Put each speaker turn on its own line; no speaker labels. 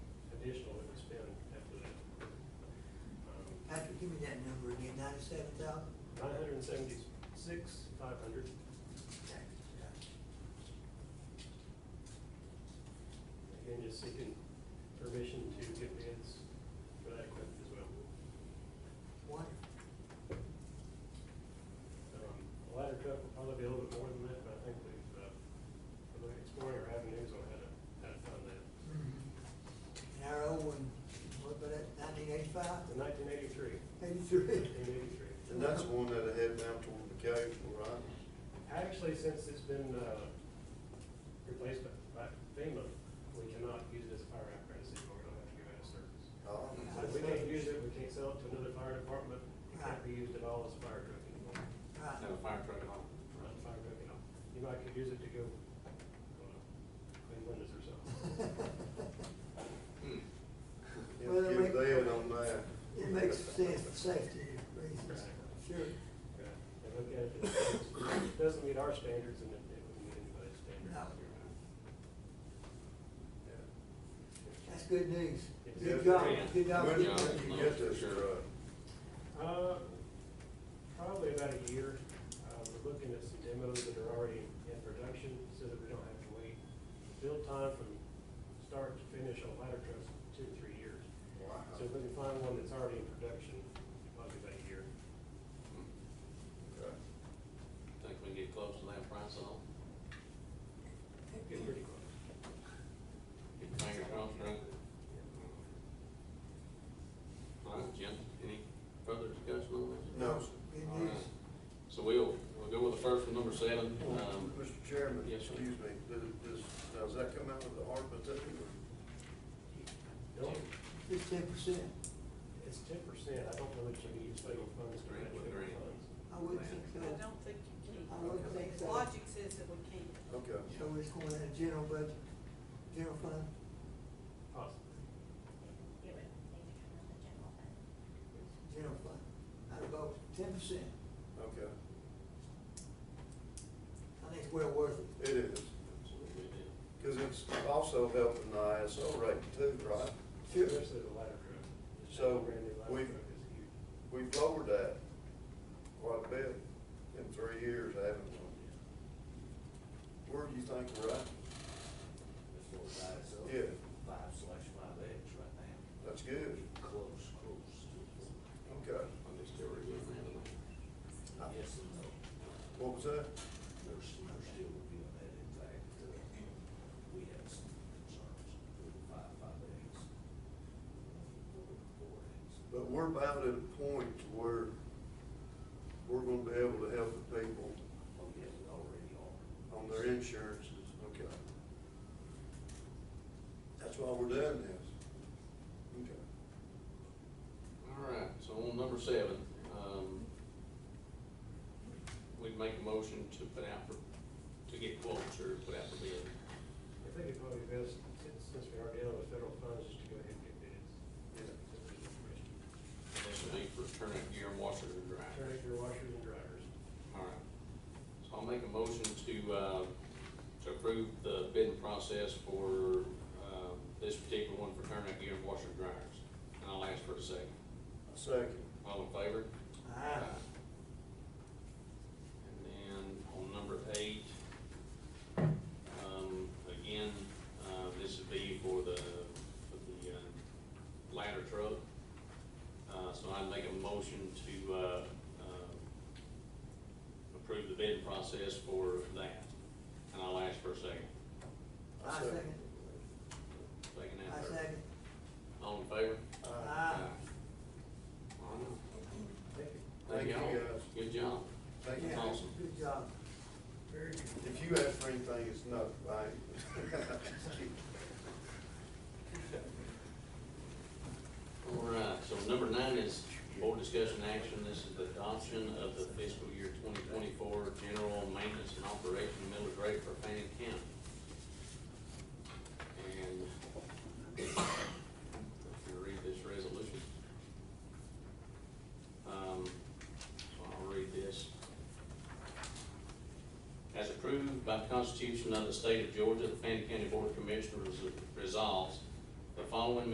ninety-seven thousand?
Um, Nine hundred and seventy-six, five hundred. Again, just seeking permission to get bids for that equipment as well.
Wonderful.
Um, The ladder truck will probably be a little bit more than that, but I think we've, uh, we're exploring our avenues on how to, how to fund that.
And our old one, what about that, nineteen eighty-five?
The nineteen eighty-three,
Eighty-three?
nineteen eighty-three.
And that's one that'll head down toward the cave, all right?
Actually, since it's been, uh, replaced by by FEMA, we cannot use it as a fire apparatus anymore, we don't have to give it a service.
Oh,
So if we can't use it, we can't sell it to another fire department, it can't be used at all as a fire truck anymore.
Right.
No fire truck at all.
Not a fire truck at all. You might could use it to go, uh, clean windows or something.
Yeah, give that on that.
It makes sense for safety reasons, sure.
Right. And look at it, it doesn't meet our standards and it it wouldn't meet anybody's standards.
No.
Yeah.
That's good news.
Yeah.
Good job, good job.
When
Yeah.
did you get this truck?
Uh, probably about a year. Uh, we're looking at some demos that are already in production so that we don't have to wait. Build time from start to finish on ladder trucks, two to three years.
Wow.
So if we can find one that's already in production, probably about a year.
Okay.
Think we can get close to that price at all?
Get pretty close.
Get your fingers crossed, right? All right, Jim, any further discussion on this?
No.
Good
All
news.
right. So we'll, we'll go with the first one, number seven. Um,
Mr. Chairman,
yes, sir.
excuse me, did- does, now, does that come out of the ARPA too?
No,
Just ten percent.
It's ten percent. I don't know that you can use federal funds to match federal
Grant.
funds.
I wouldn't think so.
I don't think you can.
I wouldn't think so.
Logic says that we can't.
Okay.
So it's going in the general budget, general fund.
Possibly.
It would need to come out of the
general
general fund.
fund, out of both, ten percent.
Okay,
I think it's well worth it.
it is,
so we did.
because it's also helping the ISO rate too, right?
Sure.
Especially the ladder truck.
So,
The brand new ladder
we've-
truck is huge.
We've lowered that quite a bit in three years, haven't we? Where do you think we're at?
as far as ISO.
Yeah.
Five slash five X right now.
That's good.
Close, close.
Okay,
I'll just get rid of that.
Yes and no.
what was that?
They're, s- they're still reviewing that. In fact, uh, we have some concerns with the five, five X. Four, four X.
But we're about at a point to where we're gonna be able to help the people
Oh, yeah, we already are.
on their insurances, okay. That's why we're doing this. Okay.
All right, so on number seven, um, we'd make a motion to put out for, to get quotes or put out for bid.
I think it'd probably be best, since, since we are dealing with federal funds, just to go ahead and get bids. Just for information.
This would be for turnout gear and washers and dryers.
Turn it your washers and dryers.
All right, so I'll make a motion to, uh, to approve the bidding process for, uh, this particular one for turnout gear and washer and dryers. And I'll ask for a second.
Second,
All in favor?
Aye.
And then on number eight, um, again, uh, this would be for the, for the, uh, ladder truck. Uh, so I'd make a motion to, uh, uh, approve the bidding process for that. And I'll ask for a second.
I
Second.
second,
Second and
I
third.
second.
All in favor?
Aye.
All right.
Thank you.
Thank you,
all.
guys.
Good job.
thank you.
Yeah,
Awesome.
Good job. Very good.
If you ask for anything, it's not right.
All right, so number nine is board discussion action. This is the adoption of the fiscal year twenty twenty-four general maintenance and operation millage rate for Fannin County. And I'm gonna read this resolution. Um, so I'll read this. As approved by the Constitution of the State of Georgia, the Fannin County Board of Commissioners resolves the following